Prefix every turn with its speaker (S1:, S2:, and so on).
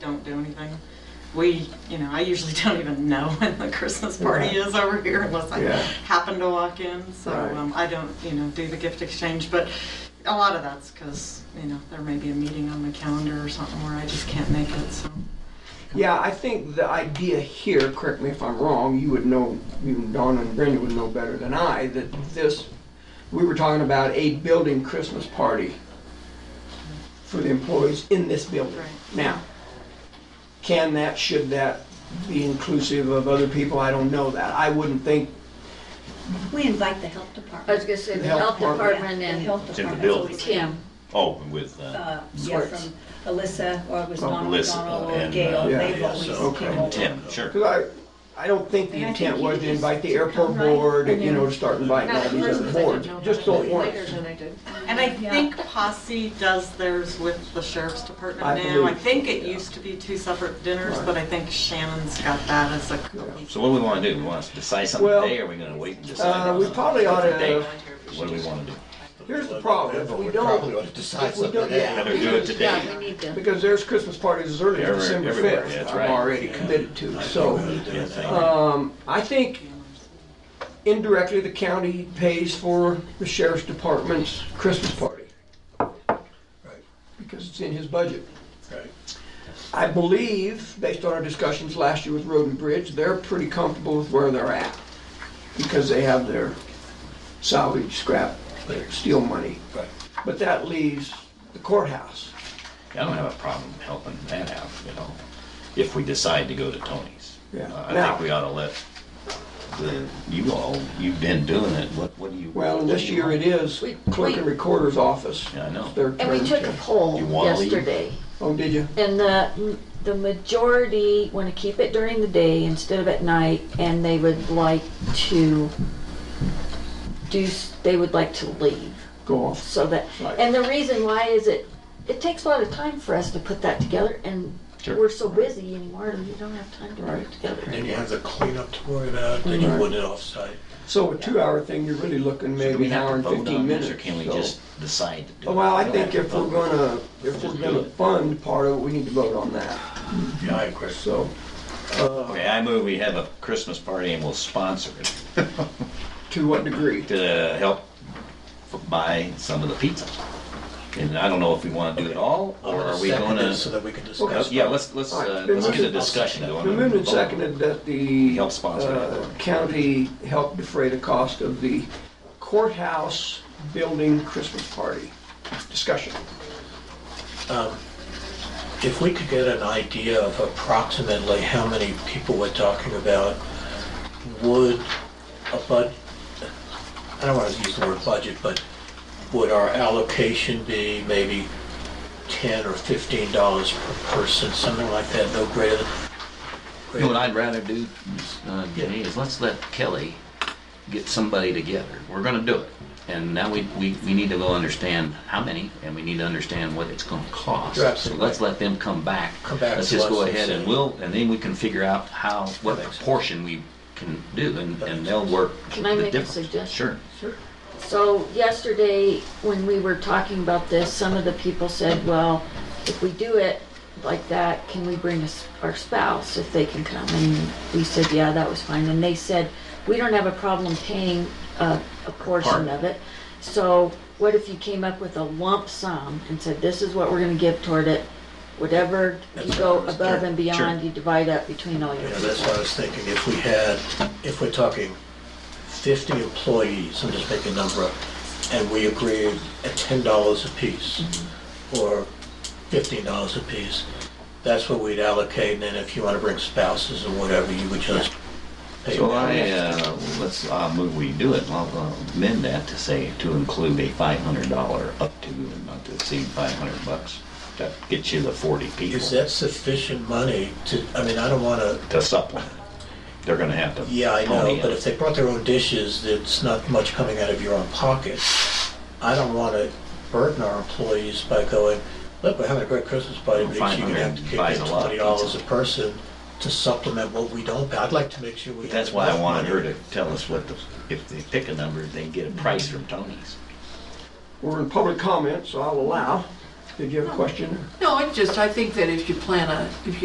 S1: don't do anything. We, you know, I usually don't even know when the Christmas party
S2: Yeah.
S1: is over here unless I
S2: Yeah.
S1: happen to walk in. So
S2: Right.
S1: um, I don't, you know, do the gift exchange. But a lot of that's because, you know, there may be a meeting on my calendar or something where I just can't make it. So
S2: Yeah, I think the idea here, correct me if I'm wrong, you would know, you, Dawn and Brenda would know better than I, that this, we were talking about a building Christmas party for the employees in this building.
S1: Right.
S2: Now, can that, should that be inclusive of other people? I don't know that. I wouldn't think,
S3: We invite the health
S4: I was
S3: department.
S4: gonna say,
S2: The
S4: the
S2: health
S4: health department
S3: Yeah, the
S4: and
S3: health
S5: It's in the
S3: department's
S5: building.
S3: always-
S4: Tim,
S5: Oh, with, uh,
S3: Uh, yeah,
S5: Swartz.
S3: from Alyssa, or it was Don
S5: Alyssa,
S3: McDonald or
S5: and,
S3: Gail,
S5: uh,
S3: they've
S5: yeah,
S3: always
S5: so-
S2: Okay.
S3: came over.
S5: Tim, sure.
S2: because I, I don't think the
S3: And I
S2: intent
S3: think
S2: was
S3: you
S2: to
S3: just
S2: invite the
S3: come
S2: airport
S3: right
S2: board,
S3: and
S2: you know,
S3: then-
S2: to start inviting all
S4: Not
S2: these
S4: at
S2: other
S4: first, but I
S2: boards.
S4: didn't know
S2: Just
S4: that
S2: don't want.
S4: later than I did.
S1: And I
S3: Yeah.
S1: think Posse does theirs with the sheriff's department
S2: I
S1: now. I
S2: believe
S1: think it
S2: so, yeah.
S1: used to be two separate dinners,
S2: Right.
S1: but I think Shannon's got that as a
S5: So what do we want to do? We want to decide something
S2: Well,
S5: today, or are we going to wait and decide?
S2: Uh,
S5: on
S2: we
S5: a
S2: probably ought
S5: different
S2: to,
S5: date? What do we want to do?
S2: here's the problem, if we don't,
S6: ought to decide
S2: if we don't- yeah.
S5: Better do it today.
S4: yeah, we need to.
S2: Because there's Christmas parties as early as
S5: Every-
S2: December
S5: everywhere,
S2: 5th.
S5: yeah, that's
S2: I'm
S5: right.
S2: already committed to, so,
S5: Yeah, thank you.
S2: um, I think indirectly, the county pays for the sheriff's department's Christmas party.
S6: Right.
S2: Because it's in his budget.
S6: Right.
S2: I believe, based on our discussions last year with Road and Bridge, they're pretty comfortable with where they're at. Because they have their salvage scrap, their steel money.
S6: Right.
S2: But that leaves the courthouse.
S5: I don't have a problem helping that out, you know, if we decide to go to Tony's.
S2: Yeah.
S5: Uh, I
S2: Now-
S5: think we ought to let the, you all, you've been doing it, what, what do you?
S2: Well, and
S5: what
S2: this
S5: do you
S2: year
S5: want?
S2: it is
S4: We-
S2: clerk and
S4: we-
S2: recorder's office.
S5: Yeah, I know.
S2: It's their
S4: And we
S2: turn
S4: took a
S2: to-
S4: poll
S5: You wanna leave?
S4: yesterday,
S2: Oh, did you?
S4: and the, the majority want to keep it during the day instead of at night, and they would like to do, s- they would like to leave.
S2: Go off.
S4: So that,
S2: Right.
S4: and the reason why is it, it takes a lot of time for us to put that together, and
S5: Sure.
S4: we're so busy anymore, we don't have time to put it together.
S6: Then you have the cleanup to worry about, then you
S2: Right.
S6: want it offsite.
S2: So a two-hour thing, you're really looking
S5: So do we
S2: maybe an
S5: have to
S2: hour and
S5: vote
S2: fifteen
S5: on this,
S2: minutes.
S5: Or can we
S2: so-
S5: just decide to do
S2: Oh,
S5: it?
S2: Well, I
S5: don't
S2: think
S5: have
S2: if
S5: to
S2: we're
S5: vote.
S2: gonna, if
S5: Just
S2: we're
S5: do
S2: gonna
S5: it.
S2: fund part of it, we need to vote on that,
S6: Yeah, I agree.
S2: so. uh,
S5: Okay, I move we have a Christmas party and we'll sponsor it
S2: To what degree?
S5: to help f- buy some of the pizza. And I don't know if we want to do it all,
S6: I'm
S5: or
S6: gonna
S5: are we
S6: second
S5: going
S6: this So
S5: to?
S6: that we can discuss.
S5: Yeah, let's, let's,
S2: All
S5: uh,
S2: right,
S5: let's
S2: then
S5: get a
S2: let's-
S5: discussion going.
S2: The movement
S5: Vote.
S2: seconded that the.
S5: Help sponsor that.
S2: uh, County help defray the cost of the courthouse building Christmas party. Discussion.
S6: If we could get an idea of approximately how many people we're talking about, would a bud, I don't want to use the word budget, but would our allocation be maybe 10 or 15 dollars per person, something like that, no greater than?
S7: You know what I'd rather do, uh, Jenny, is let's let Kelly get somebody together. We're gonna do it. And now we, we, we need to go understand how many, and we need to understand what it's gonna cost.
S6: You're
S7: So
S6: absolutely
S7: let's
S6: right.
S7: let them come back.
S6: Come back
S7: Let's
S6: to
S7: just
S6: us
S7: go
S6: and
S7: ahead and
S6: see.
S7: we'll, and then we can figure out how, what
S6: That makes sense.
S7: proportion we can do, and,
S6: That
S7: and
S6: makes
S7: they'll work
S4: Can I
S7: the
S4: make a
S7: difference.
S4: suggestion?
S7: Sure.
S4: So yesterday, when we were talking about this, some of the people said, well, if we do it like that, can we bring us- our spouse if they can come? And we said, yeah, that was fine. And they said, we don't have a problem paying a, a portion
S7: Part.
S4: of it. So what if you came up with a lump sum and said, this is what we're gonna give toward it? Whatever you
S6: That's
S4: go
S6: what I was-
S4: above and
S5: Sure.
S4: beyond, you divide up between all your
S6: You know,
S4: people.
S6: that's what I was thinking, if we had, if we're talking 50 employees, I'm just making a number up, and we agreed at $10 apiece, or $15 apiece, that's what we'd allocate, and then if you want to bring spouses or whatever, you would just pay
S5: So
S6: them.
S5: I, uh, let's, uh, move we do it, I'll uh, amend that to say to include a five hundred dollar up to, and not to exceed five hundred bucks. That gets you the forty people
S6: Is that sufficient money to, I mean, I don't want to,
S5: to supplement. They're gonna have to.
S6: yeah, I know,
S5: pony
S6: but
S5: up.
S6: if they brought their own dishes, it's not much coming out of your own pocket. I don't want to burden our employees by going, look, we're having a great Christmas party, but each you're gonna have to
S5: 500
S6: kick
S5: buys
S6: in
S5: a lot of
S6: twenty dollars a
S5: pizza.
S6: person to supplement what we don't pay. I'd like to make sure we. have
S5: That's why I
S6: enough
S5: wanted her
S6: money.
S5: to tell us what the, if they pick a number, they can get a price from Tony's.
S2: We're in public comment, so I'll allow. Did you have a question?
S8: No, I just, I think that if you plan a, if you